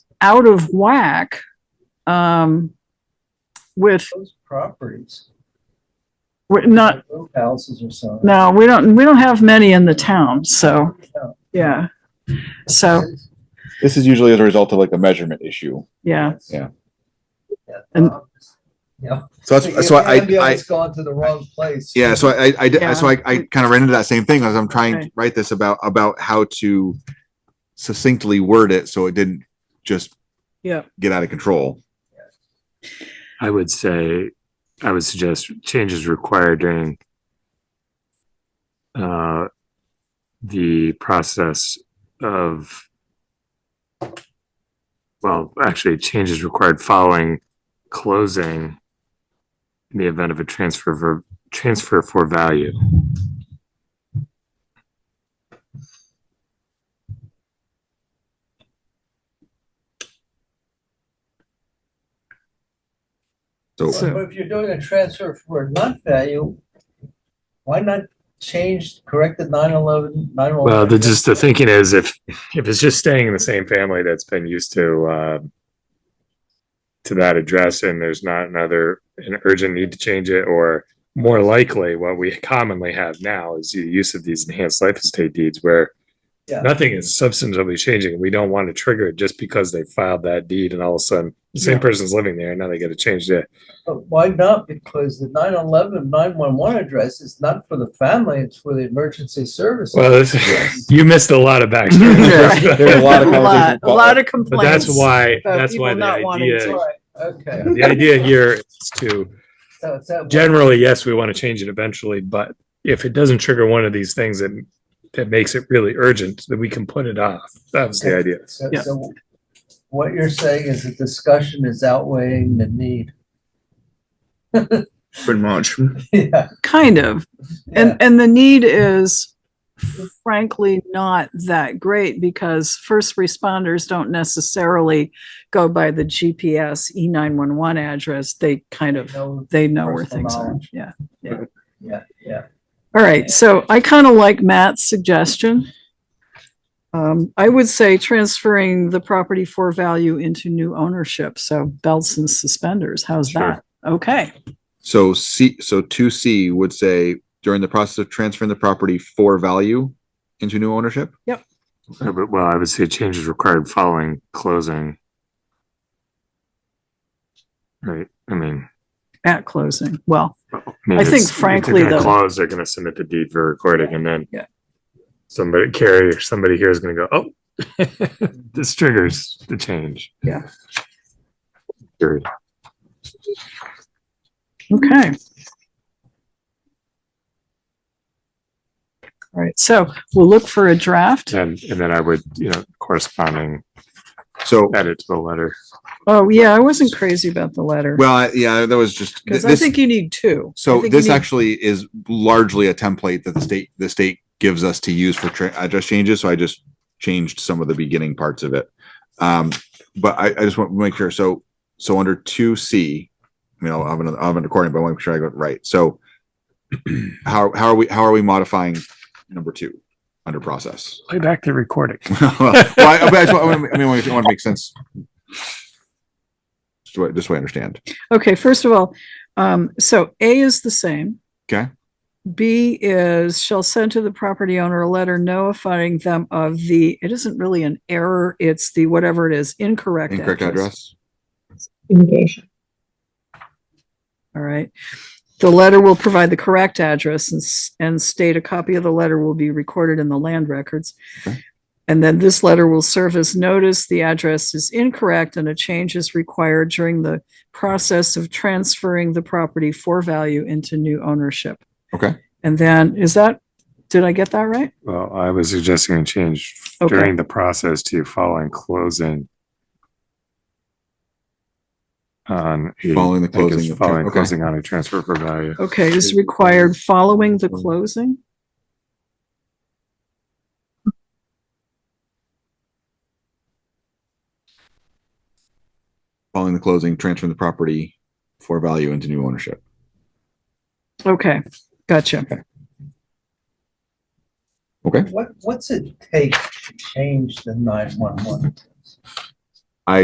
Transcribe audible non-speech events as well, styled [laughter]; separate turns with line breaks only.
out of whack um, with
Those properties.
we're not
like those Houses or so.
Uh, no we don't we don't have many in the town so yeah so
This is usually as a result of like a measurement issue.
yeah
Yeah.
And-
Yeah.
So that's, so I, I,
It's gone to the wrong place.
yeah, so I, I- I, did- so I, I kind of ran into that same thing as I'm trying to
Right.
write this about, about how to succinctly word it so it didn't just
Yeah.
get out of control.
I would say, I would suggest changes required during uh, the process of, well, actually, changes required following closing in the event of a transfer for, transfer for value.
So
So-
But if you're doing a transfer for a nut value, why not change, correct the nine eleven, nine one?
Well, the, just the thinking is if, if it's just staying in the same family that's been used to, uh, to that address and there's not another, an urgent need to change it, or more likely what we commonly have now is the use of these enhanced life estate deeds where
Yeah.
nothing is substantively changing. We don't want to trigger it just because they filed that deed and all of a sudden the same person's living there and now they get to change it.
But why not? Because the 911, 911 address is not for the family, it's for the emergency services.
Well, this- [laughs] you missed a lot of
[laughs]
backstory.
Yeah.
There's a lot of
a lot,
conversations.
a lot of
But
complaints
that's why,
about
that's why
people
the
not wanting
idea,
to-
Right,
[laughs]
Okay.
the idea here is to
So it's that-
generally, yes, we want to change it eventually, but if it doesn't trigger one of these things that that makes it really urgent, then we can put it off. That was the idea.
So,
Yeah.
so what you're saying is the discussion is outweighing the need. [laughs]
pretty much.
Yeah.
kind of and and the need is frankly not that great because first responders don't necessarily go by the gps e911 address they kind
Yeah.
of
No,
they know where
Personal
things are
knowledge.
yeah
Yeah, yeah.
All right, so I kind of like Matt's suggestion. Um, I would say transferring the property for value into new ownership, so belts and suspenders, how's
Sure.
that? Okay,
So C, so two C would say during the process of transferring the property for value into new ownership.
Uh, But well, I would say change is required following closing. Right, I mean.
at closing, well,
mean,
I think
it's- if they're
frankly,
gonna
though-
Close, they're gonna submit the deed for recording and then.
Yeah.
Somebody carrier, somebody here is gonna go, oh, [laughs] this triggers the change.
Yeah.
Period.
okay. All right, so we'll look for a draft.
And, and then I would, you know, corresponding
So,
edit to the letter.
Oh, yeah, I wasn't crazy about the letter,
well, I- yeah, that was just.
because I
this-
think you need two. I
So
think you
this
need-
actually is largely a template that the state, the state gives us to use for tra- address changes. So I just changed some of the beginning parts of it. Um, but I, I just want to make sure. So, so under two C, you know, I'm gonna, I'm recording, but I want to make sure I got it right. So [clears throat] how, how are we, how are we modifying number two under process? [laughs]
Play back the recording.
well, I, but I, just want- I mean, I want to make sense. Just so I- just so I understand.
Okay, first of all, um, so A is the same.
Okay.
B is shall send to the property owner a letter notifying them of the, it isn't really an error, it's the whatever it is, incorrect
Incorrect
address.
address.
communication.
All right. The letter will provide the correct address and, s- and state a copy of the letter will be recorded in the land records.
Okay.
And then this letter will serve as notice. The address is incorrect and a change is required during the process of transferring the property for value into new ownership.
Okay.
And then, is that, did I get that right?
Well, I was suggesting a change
Okay.
during the process to following closing. On. a-
Following the
I think it's
closing of-
Following
okay.
closing on a transfer for value.
Okay, is required following the closing?
following the closing, transferring the property for value into new ownership.
Okay, gotcha.
What, what's it take to change the nine one one?